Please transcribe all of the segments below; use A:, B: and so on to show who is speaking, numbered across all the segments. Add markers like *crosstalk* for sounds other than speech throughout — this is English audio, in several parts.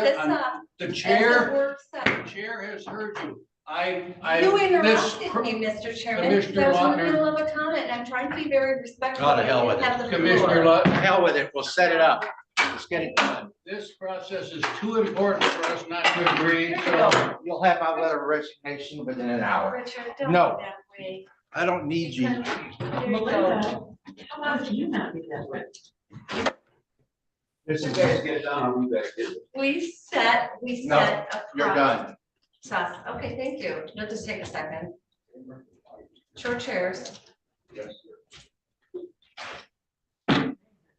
A: this
B: on-
A: up
B: The
A: as a
B: chair,
A: work session.
B: the chair has heard you. I, I.
A: You
B: mispr-
A: interrupted me, Mr. Chairman, because I was in the
B: Lautner-
A: middle of a comment, and I'm trying to be very respectful.
C: Oh, to hell with
A: and
C: it.
A: have the floor.
B: Commissioner Lutton,
C: Hell with it, we'll set it up. Let's get it done.
B: this process is too important for us not to agree, so.
C: You'll have my letter of resignation within an hour.
A: Richard, don't
C: No.
A: be that way.
C: I don't need you.
A: Melinda.
D: How long can you not be that way?
C: This is guys get done, you guys get it.
A: We set, we
C: No,
A: set a
C: You're done.
A: process. Okay, thank you. It'll just take a second. Short chairs.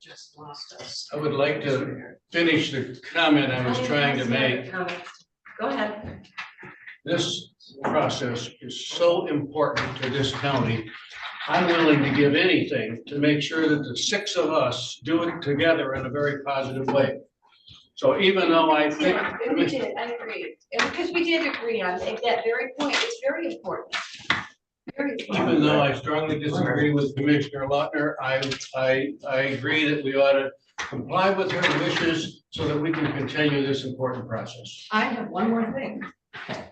D: Just lost us.
B: I would like to finish the comment I was trying to make.
A: Go ahead.
B: This process is so important to this county. I'm willing to give anything to make sure that the six of us do it together in a very positive way. So even though I think,
A: Yeah, and we
B: Commissioner-
A: did, I agree. And because we did agree on that that very point, it's very important. Very important.
B: even though I strongly disagree with Commissioner Lautner, I, I, I agree that we ought to comply with her wishes so that we can continue this important process.
D: I have one more thing.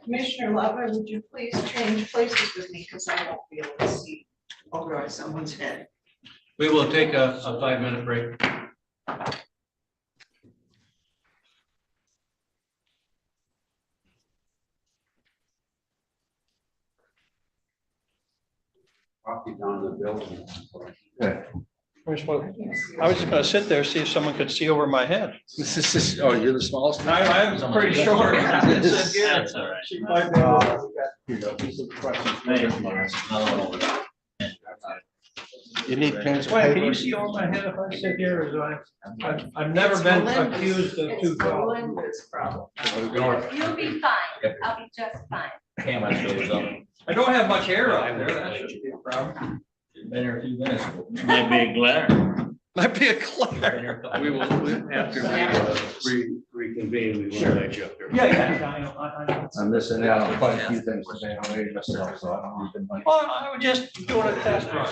D: Commissioner Lover, would you please change places with me because I won't be able to see over someone's head.
B: We will take a, a five-minute break.
E: I was just gonna sit there, see if someone could see over my head.
C: This is- this is- *laughs* oh, you're the smallest.
E: I, I'm pretty short.
F: That's all right.
C: You need pens. and
E: Wait, can you
C: papers?
E: see over my head if I sit here or do I? I've, I've never been accused of two
D: It's
E: jobs.
D: Melinda's problem.
A: You'll be fine. I'll be just fine.
E: I don't have much hair out there, that shouldn't be a problem.
F: Might be a glare.
E: Might be a clerk.
B: We will, after we reconvene, we will let you up there.
E: Yeah, yeah, I know, I, I know.
C: I'm missing out on quite a few things today. I'm ready myself, so I don't need the money.
E: Well, I was just doing a test run.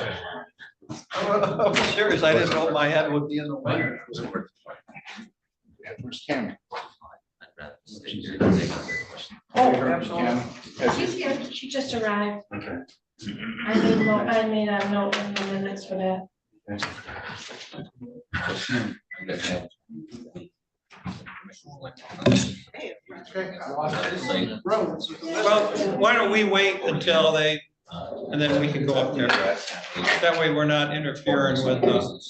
E: *laughs* I'm serious, I didn't know my head would be in the way.
C: Yeah, Where's Kim?
E: Oh, absolutely.
G: She's here, she just arrived. I made, mo- I made a note in the minutes for that.
E: Well, why don't we wait until they, and then we can go up there. That way we're not interfering with the,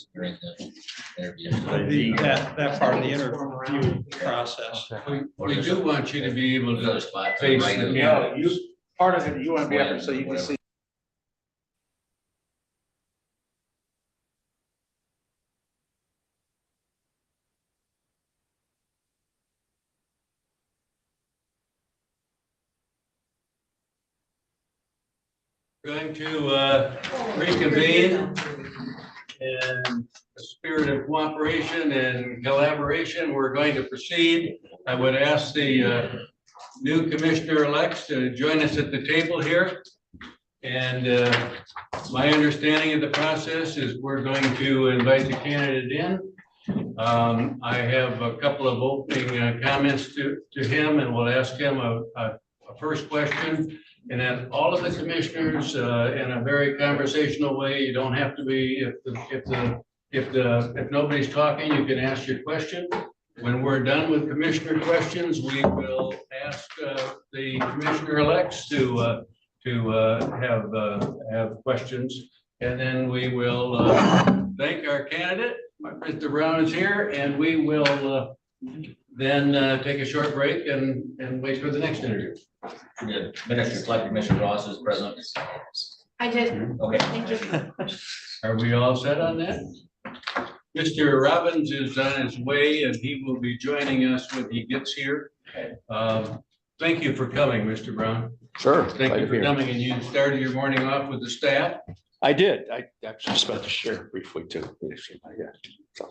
E: the, that, that part of the interview process.
B: We- We do want you to be able to
F: spot.
B: face the camera.
C: Part of it, you want to
F: be up there so you can see
B: Going to uh, reconvene in a spirit of cooperation and collaboration. We're going to proceed. I would ask the uh, new commissioner-elects to join us at the table here. And uh, my understanding of the process is we're going to invite the candidate in. Um, I have a couple of opening uh, comments to, to him, and we'll ask him a, a a first question. And then all of the commissioners, uh, in a very conversational way, you don't have to be, if, the if the, if the, if nobody's talking, you can ask your question. When we're done with commissioner questions, we will ask, uh, the commissioner elects to, uh, to, uh, have, uh, have questions. And then we will, uh, thank our candidate, Mr. Brown is here, and we will, uh, then, uh, take a short break and, and wait for the next interview.
F: Minutes reflect Commissioner Ross is present.
G: I did,
F: Okay.
G: thank you.
B: Are we all set on that? Mr. Robbins is on his way and he will be joining us when he gets here. Um, Thank you for coming, Mr. Brown.
H: Sure.
B: Thank you
H: glad to be
B: for
H: here.
B: coming and you started your morning off with the staff.
H: I did. I actually was about to share briefly too. Yeah.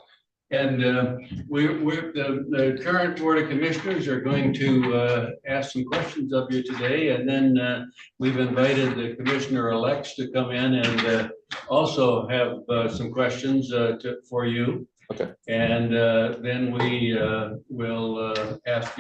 B: And uh, we're, we're, the, the current Board of Commissioners are going to uh, ask some questions of you today. And then uh, we've invited the Commissioner-elects to come in and uh, also have uh, some questions uh, to, for you.
H: Okay.
B: And uh, then we uh, will uh, ask